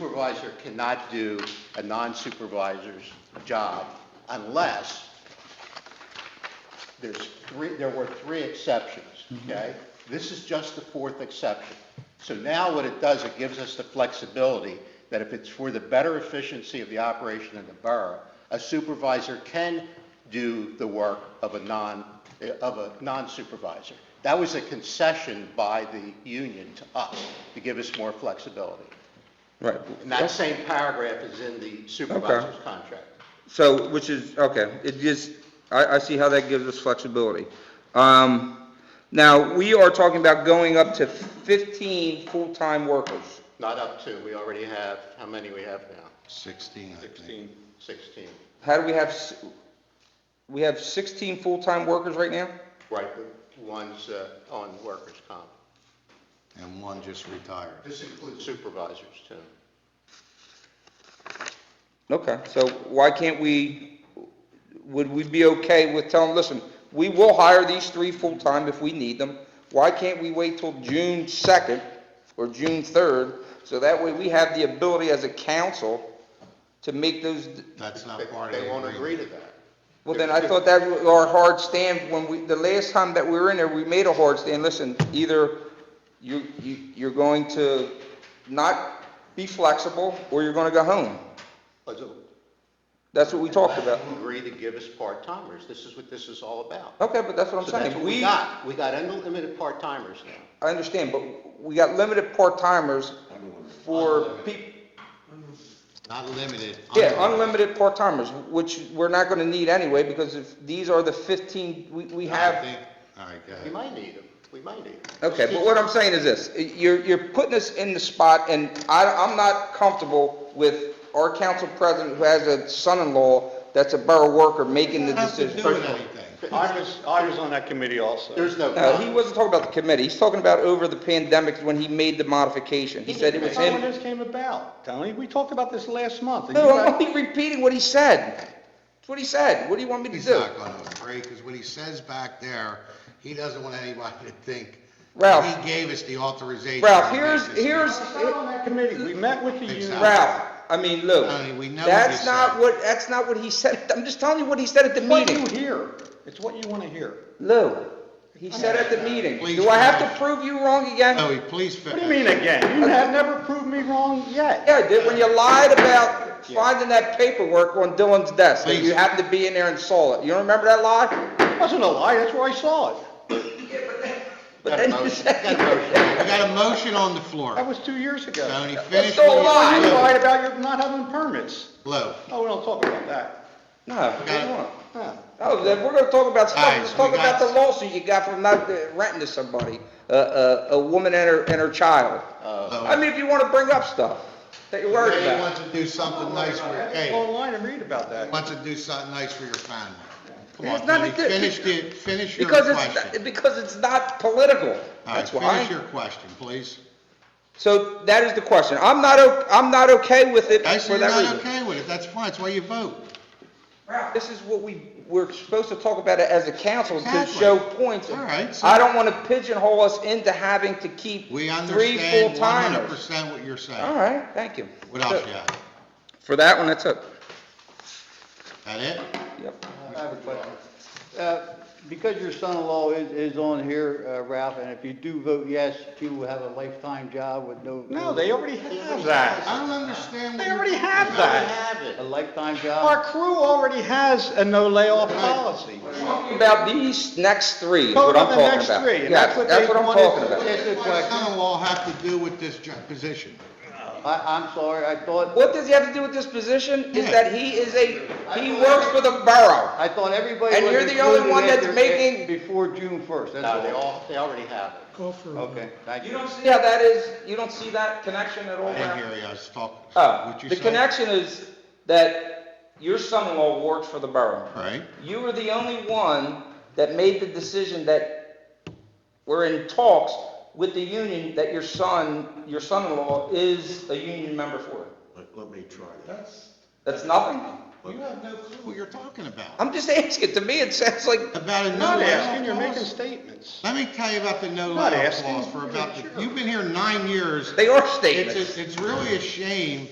supervisor cannot do a non-supervisor's job unless there's three, there were three exceptions, okay? This is just the fourth exception. So now what it does, it gives us the flexibility that if it's for the better efficiency of the operation in the borough, a supervisor can do the work of a non, eh, of a non-supervisor. That was a concession by the union to us, to give us more flexibility. Right, And that same paragraph is in the supervisor's contract. so, which is, okay, it gives, I, I see how that gives us flexibility. Um, now, we are talking about going up to fifteen full-time workers. Not up to, we already have, how many we have now? 16, I think. 16. How do we have, s- we have sixteen full-time workers right now? Right, the ones uh, on workers' comp. And one just retired. This includes supervisors, too. Okay, so why can't we, would we be okay with telling, listen, we will hire these three full-time if we need them. Why can't we wait till June second or June third? So that way we have the ability as a council to make those, That's not They part of they the won't agree agreement. to that. well then I thought that was our hard stand when we, the last time that we were in there, we made a hard stand. Listen, either you, you, you're going to not be flexible or you're gonna go home. But they'll That's what we talked about. Agree to give us part-timers, this is what this is all about. Okay, but that's what I'm So saying. that's what we got, we got unlimited part-timers now. I understand, but we got limited part-timers for people, Not limited. yeah, unlimited part-timers, which we're not gonna need anyway, because if, these are the fifteen, we, we I have. think- All right, go We ahead. might need them, we might need them. Okay, but what I'm saying is this, you're, you're putting us in the spot, and I, I'm not comfortable with our council president who has a son-in-law that's a borough worker making the It has to decision. do with anything. I was, I was on that committee also. There's no. No, he wasn't talking about the committee, he's talking about over the pandemic when he made the modification, he said it was That's how him. this came about, Tony. We talked about this last month. and you No, I'm guys- only repeating what he said, that's what he said, what do you want me to do? He's not going to agree, because what he says back there, he doesn't want anybody to think Ralph. he gave us the authorization. Ralph, to make here's, this here's, I was not on that committee. We met with the union. Exactly. Ralph, I mean, Lou, Tony, we know what that's he not said. what, that's not what he said, I'm just telling you what he said at the It's What you meeting. hear, it's what you want to hear. Lou, he said at the meeting, Please do I have finish. to prove you wrong again? Joey, please finish. What do you mean again? You have never proved me wrong yet. Yeah, I did, when you lied about finding that paperwork on Dylan's desk, that you Please. happened to be in there and saw it, you don't remember that lie? It wasn't a lie, that's where I saw it. But then you said, We got a motion on the That floor. was two years ago. Tony, that's finish so what lie. You lied about your not having permits. you... Lou, Oh, we don't talk about that. no, come on. Huh. Oh, then we're gonna talk about stuff, Guys, let's we talk about got- the lawsuit you got from not uh, renting to somebody, uh, uh, a woman and her, and her child. I mean, if you wanna bring up stuff that you're worried Kay about. wants to do something nice for you. Go Kay online and read about that. wants to do something nice for your family. Come There's on, Tony, nothing to- finish it, finish your Because question. it's, because it's not political, All right, that's finish your why. question, please. So that is the question, I'm not, o- I'm not okay with it I for said you're that not reason. okay with it, that's fine, that's why you vote. Ralph, This is what we, we're supposed to talk about it as a council to Exactly. show points. All right, so- I don't wanna pigeonhole us into having to keep We three understand one hundred full-timers. percent what you're All saying. right, thank you. What else you have? For that one, that's it. That it? Yep. I have a question. Uh, Because your son-in-law is, is on here, uh, Ralph, and if you do vote yes, he will have a lifetime job with no. No, they already have that. I don't understand. what They you- already have We that. have A it. lifetime Our job. crew already has a no layoff policy. Talking about these next three is Talking what I'm about the talking next about. three, and Yes, that's what they I'm wanted talking to- about. Yes, What it's does like- my son-in-law have to do with this jo- position? I, I'm sorry, I thought, What does he have to do with this position? Is Yeah. that he is a, he works for the borough. I thought everybody. And was you're the only included one that's after- making- Before June first, that's No, they all. all, they already have it. Okay, thank You you. don't see how that is, you don't see that connection at all? I didn't Ralph? hear you, I was talking. Oh, What you the say? connection is that your son-in-law works for the borough. Right, You were the only one that made the decision that we're in talks with the union that your son, your son-in-law is a union member for. Let, let me try that. That's nothing. You have no clue what you're talking about. I'm just asking, to me, it sounds like, About a I'm no not layoff asking, you're making clause? statements. Let me tell you about the no Not layoff asking. clause for about, Yeah, sure. you've been here nine years. they are It's, statements. it's- it's really a shame